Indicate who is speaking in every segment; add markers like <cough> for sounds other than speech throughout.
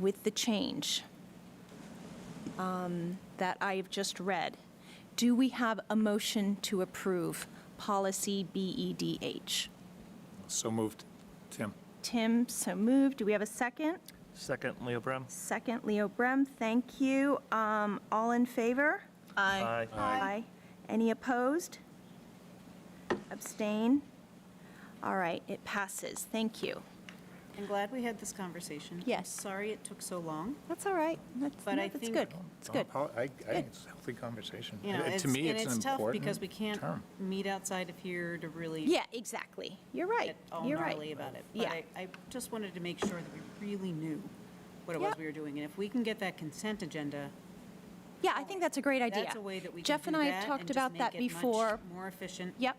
Speaker 1: with the change um, that I have just read, do we have a motion to approve policy E BEDH?
Speaker 2: So moved. Tim?
Speaker 1: Tim, so moved. Do we have a second?
Speaker 3: Second, Leo Brem.
Speaker 1: Second, Leo Brem, thank you. Um, All in favor?
Speaker 3: Aye.
Speaker 1: Aye. Any opposed? Abstain? All right, it passes. Thank you.
Speaker 4: I'm glad we had this conversation.
Speaker 1: Yes.
Speaker 4: Sorry it took so long.
Speaker 1: That's all right. That's,
Speaker 4: But
Speaker 1: no,
Speaker 4: I
Speaker 1: that's
Speaker 4: think-
Speaker 1: good. It's good.
Speaker 2: I, I think it's a healthy conversation.
Speaker 4: You know,
Speaker 2: Uh,
Speaker 4: it's,
Speaker 2: To
Speaker 4: and
Speaker 2: me, it's an
Speaker 4: it's tough
Speaker 2: important
Speaker 4: because we can't
Speaker 2: term.
Speaker 4: meet outside of here to really.
Speaker 1: Yeah, exactly. You're right.
Speaker 4: Get all
Speaker 1: You're
Speaker 4: gnarly
Speaker 1: right.
Speaker 4: about it.
Speaker 1: Yeah.
Speaker 4: But I, I just wanted to make sure that we really knew what it was
Speaker 1: Yep.
Speaker 4: we were doing. And if we can get that consent agenda,
Speaker 1: Yeah, I think that's a great idea.
Speaker 4: that's a way that we can do that.
Speaker 1: Jeff and I have
Speaker 4: and
Speaker 1: talked
Speaker 4: just
Speaker 1: about
Speaker 4: make
Speaker 1: that
Speaker 4: it much
Speaker 1: before.
Speaker 4: More efficient.
Speaker 1: Yep,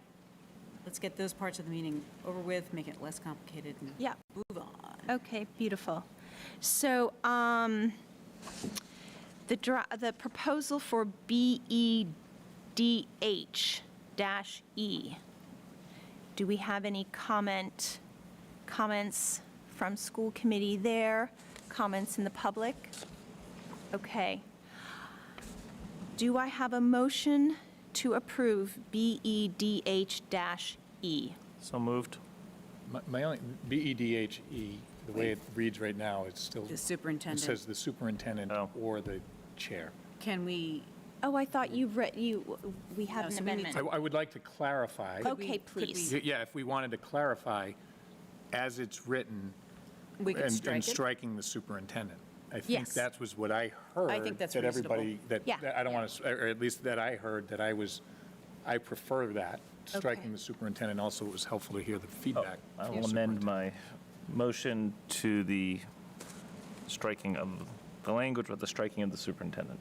Speaker 4: Let's get those parts of the meeting over with, make it less complicated and
Speaker 1: yep.
Speaker 4: move on.
Speaker 1: Okay, beautiful. So um, the dra the proposal for BEDH dash E, do we have any comment, comments from school committee there? Comments in the public? Okay. Do I have a motion to approve BEDH dash E?
Speaker 3: So moved.
Speaker 2: My- My only, E B-E-D-H-E, the way it reads right now, it's still.
Speaker 4: The
Speaker 2: It
Speaker 4: superintendent.
Speaker 2: says the superintendent
Speaker 3: Oh.
Speaker 2: or the chair.
Speaker 4: Can we?
Speaker 1: Oh, I thought you read, you, we have
Speaker 4: No,
Speaker 1: an
Speaker 4: so we need
Speaker 1: amendment.
Speaker 2: I, I would like to clarify.
Speaker 4: Could we-
Speaker 1: Okay,
Speaker 4: could we-
Speaker 1: please.
Speaker 2: Y- Yeah, if we wanted to clarify, as it's written.
Speaker 4: We could
Speaker 2: and-
Speaker 4: strike
Speaker 2: And
Speaker 4: it.
Speaker 2: striking the superintendent. I think
Speaker 1: Yes.
Speaker 2: that was what I heard.
Speaker 4: that's
Speaker 2: That everybody, that,
Speaker 1: Yeah.
Speaker 2: that I don't want to, or at least that I heard, that I was, I prefer that, striking the superintendent. Also, it was helpful to hear the feedback.
Speaker 3: I
Speaker 2: from
Speaker 3: will
Speaker 2: the
Speaker 3: amend
Speaker 2: superintendent.
Speaker 3: my motion to the striking of the language with the striking of the superintendent.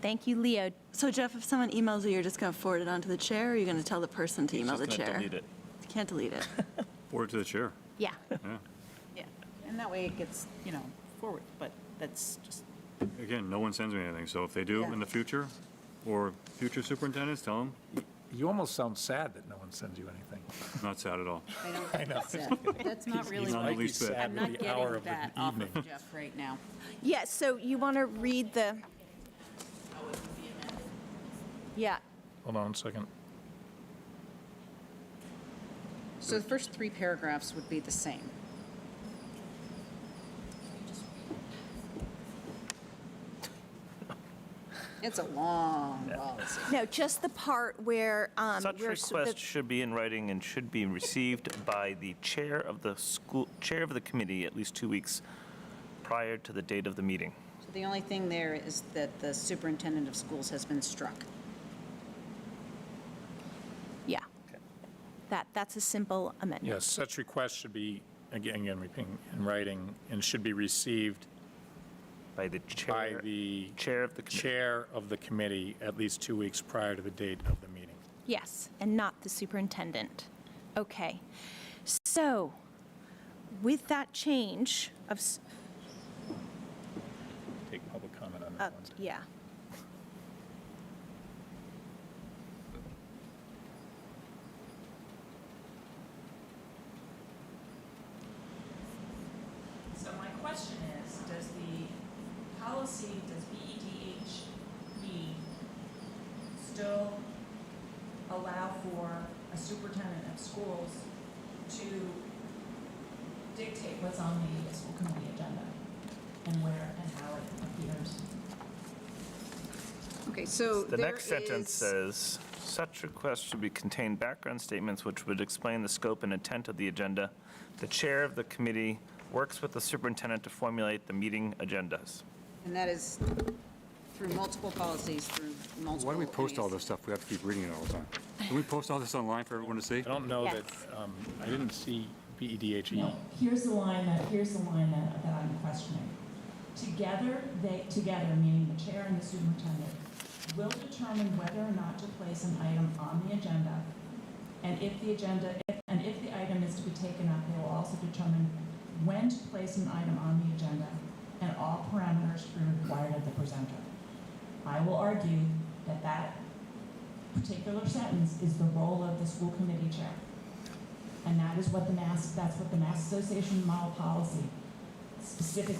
Speaker 1: Thank you, Leo.
Speaker 5: So Jeff, if someone emails you, you're just going to forward it on to the chair, or you're going to tell the person to email the
Speaker 3: Just gonna
Speaker 5: chair?
Speaker 3: delete it.
Speaker 5: You can't delete
Speaker 3: <laughs>
Speaker 5: it.
Speaker 6: Forward to the chair.
Speaker 1: Yeah.
Speaker 4: Yeah, and that way it gets, you know, forward, but that's just,
Speaker 6: Again, no one sends me anything, so if they do
Speaker 4: Yeah.
Speaker 6: in the future, or future superintendents, tell them,
Speaker 2: You almost sound sad that no one sends you anything.
Speaker 6: not sad at all.
Speaker 4: I don't think that's it. That's not really,
Speaker 6: he's not
Speaker 4: what-
Speaker 6: the least bit.
Speaker 4: I'm
Speaker 2: sad
Speaker 4: not
Speaker 2: with the hour
Speaker 4: getting
Speaker 2: of
Speaker 4: that
Speaker 2: the
Speaker 4: off
Speaker 2: evening.
Speaker 4: of Jeff right now.
Speaker 1: Yeah, so you want to read the... Yeah,
Speaker 2: Hold on a second.
Speaker 4: So the first three paragraphs would be the same. It's a long policy.
Speaker 1: no, just the part where... um,
Speaker 3: Such
Speaker 1: we're s- the-
Speaker 3: request should be in writing and should be received by the chair of the school, chair of the committee at least two weeks prior to the date of the meeting.
Speaker 4: So the only thing there is that the superintendent of schools has been struck.
Speaker 1: Yeah. That, that's a simple amendment.
Speaker 2: Yes, such requests should be, again, again, repeating, in writing, and should be received
Speaker 3: By the
Speaker 2: by
Speaker 3: chair,
Speaker 2: the
Speaker 3: chair of the committee.
Speaker 2: chair of the committee at least two weeks prior to the date of the meeting.
Speaker 1: Yes, and not the superintendent. Okay. So, with that change of, s-
Speaker 2: Take public comment on
Speaker 1: uh,
Speaker 2: that one.
Speaker 1: yeah.
Speaker 7: So my question is, does the policy, does E BEDHE E still allow for a superintendent of schools to dictate what's on the school committee agenda and where and how it appears?
Speaker 4: Okay, so
Speaker 3: The next sentence says, such requests should be contain background statements which would explain the scope and intent of the agenda. The chair of the committee works with the superintendent to formulate the meeting agendas.
Speaker 4: And that is through multiple policies, through multiple.
Speaker 6: Why do we post all
Speaker 4: NES.
Speaker 6: this stuff? We have to keep reading it all the time. Can we post all this online for everyone to see?
Speaker 2: I don't know that,
Speaker 1: Yes.
Speaker 2: um, I didn't see E
Speaker 7: No,
Speaker 2: BEDHE.
Speaker 7: here's the line that, here's the line that, that I'm questioning. Together, they, together, meaning the chair and the superintendent, will determine whether or not to place an item on the agenda. And if the agenda, and if the item is to be taken up, they will also determine when to place an item on the agenda and all parameters to be required of the presenter. I will argue that that particular sentence is the role of the school committee chair. And that is what the Mass, that's what the Mass Association model policy specifically